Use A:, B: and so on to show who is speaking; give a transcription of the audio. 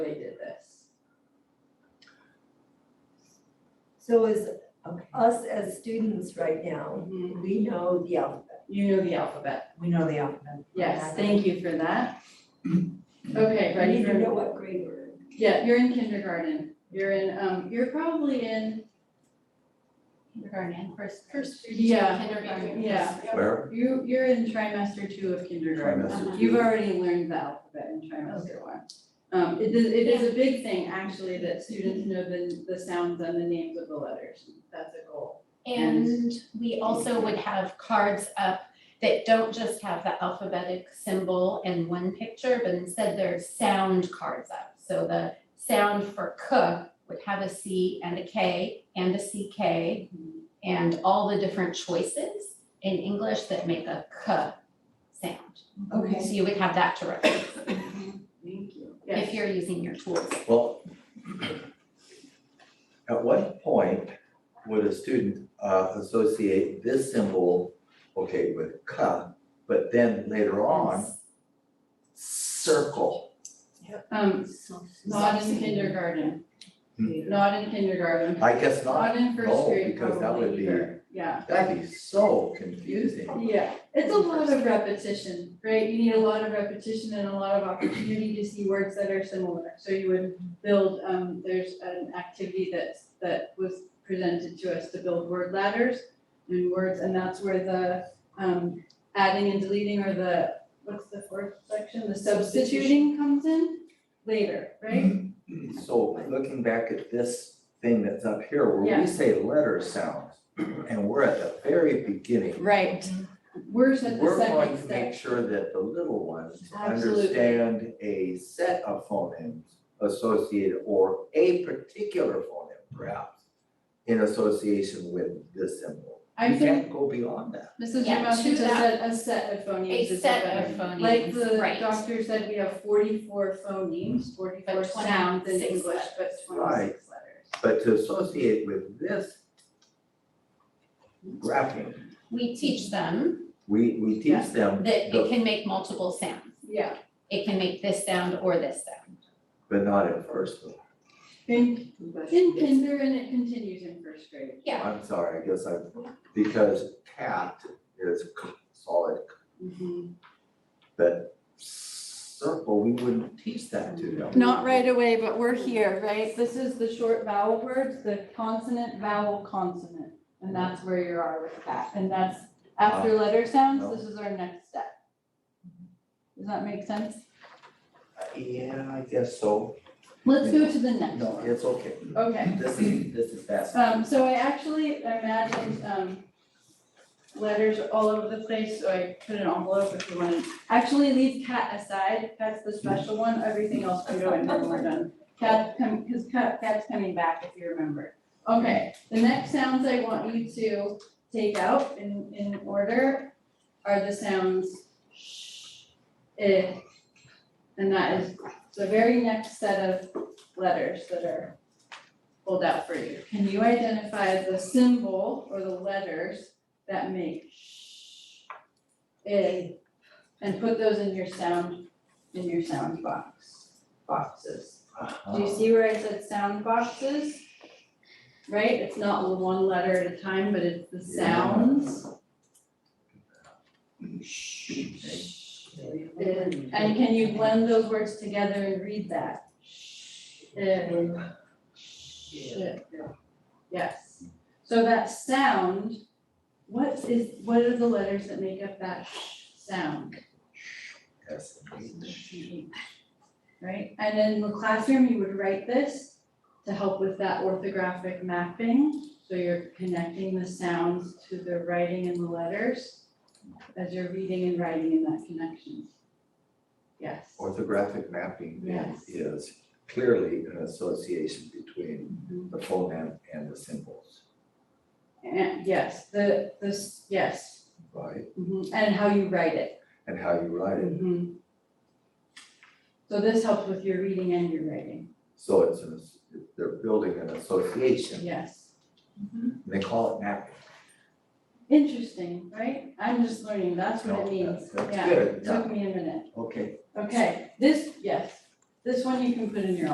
A: So as
B: Okay.
A: us as students right now,
C: Mhm.
A: we know the alphabet.
C: You know the alphabet.
B: We know the alphabet.
C: Yes, thank you for that. Okay,
A: We
C: ready
A: need to
C: for,
A: know what grade we're in.
C: yeah, you're in kindergarten. You're in, um, you're probably in,
D: Kindergarten and first.
E: First through
C: Yeah.
E: kindergarten.
C: yeah.
F: Where?
C: You, you're in trimester two of kindergarten.
F: Trimester
C: You've
F: two.
C: already learned the alphabet in trimester one. Um, it is, it is a big thing, actually, that students know the, the sounds and the names of the letters. That's a goal.
E: And we also would have cards up that don't just have the alphabetic symbol and one picture, but instead there's sound cards up. So the sound for cook would have a C and a K and a CK and all the different choices in English that make a K sound.
B: Okay.
E: So you would have that to reference
C: Thank you.
E: if
C: Yes,
E: you're using your tools.
F: Well, at what point would a student uh, associate this symbol, okay, with ka, but then later on, circle?
C: um, not in kindergarten.
B: Mm.
F: Hmm.
C: Not in kindergarten.
F: I guess not,
C: Not in first
F: no,
C: grade
F: because that would
C: probably
F: be-
C: either. Yeah.
F: that'd be so confusing.
C: Yeah, it's a lot of repetition, right? You need a lot of repetition and a lot of opportunity to see words that are similar. So you would build, um, there's an activity that's, that was presented to us to build word ladders and words, and that's where the, um, adding and deleting or the, what's the fourth section? The substituting comes in later, right?
F: So looking back at this thing that's up here, where
C: Yeah.
F: we say letter sounds, and we're at the very beginning.
C: Right. Words at the
F: We're going
C: second
F: to
C: step.
F: make sure that the little ones
C: Absolutely.
F: understand a set of phonemes associated or a particular phoneme perhaps in association with this symbol.
C: I
F: You
C: think
F: can't go beyond that.
C: Mrs.
E: Yeah,
C: Jamowski
E: to
C: just
E: that-
C: said a set of phonemes
E: A
C: is
E: set of phonemes,
C: Like the
E: right.
C: doctor said, we have forty-four phonemes, forty-four
E: But
C: sounds in
E: 26
C: English, but
F: Mm. Right.
C: twenty-six letters.
F: But to associate with this graphing,
E: We teach them
F: we, we
C: Yeah.
F: teach them,
E: that
F: the-
E: it can make multiple sounds.
C: Yeah,
E: It can make this sound or this sound.
F: but not at first. though.
C: in, in kinder and it continues in first grade.
E: Yeah.
F: I'm sorry, I guess I, because cat is k- solid, k- Mm-hmm. but circle, we wouldn't teach that to them.
C: Not right away, but we're here, right? This is the short vowel words, the consonant, vowel, consonant. And that's where you are with that, and that's after letter sounds, this is our next step.
F: Mm-hmm.
C: Does that make sense?
F: Yeah, I guess so.
C: Let's go to the next
F: No,
C: one.
F: it's okay.
C: Okay.
F: This is, this is fast.
C: Um, so I actually imagined, um, letters all over the place, so I put an envelope if you wanted. Actually, leave cat aside, that's the special one, everything else can go in when we're done. Cat, come, cause cat, cat's coming back if you remember. Okay, the next sounds I want you to take out in, in order are the sounds sh, eh, and that is the very next set of letters that are pulled out for you. Can you identify the symbol or the letters that make sh, eh, and put those in your sound, in your sound box, boxes?
F: Uh-huh.
C: Do
F: Um,
C: you see where I said sound boxes? Right, it's not one letter at a time, but it's the
F: Yeah.
C: sounds.
F: Okay.
C: Eh, And can you blend those words together and read that? Eh, Shit. Yes, so that sound, what is, what are the letters that make up that sh sound,
F: Yes. indeed.
C: right? And then in the classroom, you would write this to help with that orthographic mapping, so you're connecting the sounds to the writing and the letters as you're reading and writing in that connection. Yes.
F: Orthographic mapping
C: Yes.
F: is clearly an association between
C: Mhm.
F: the phoneme and the symbols,
C: And yes, the, this, yes,
F: right?
C: mhm, and how you write it.
F: And how you write it.
C: Mhm. So this helps with your reading and your writing,
F: So it's, an as- they're building an association.
C: yes.
F: and They call it mapping.
C: Interesting, right? I'm just learning, that's what
F: No,
C: it means,
F: that's- that's
C: yeah,
F: good,
C: it took me a minute.
F: Okay.
C: Okay, this, yes, this one you can put in your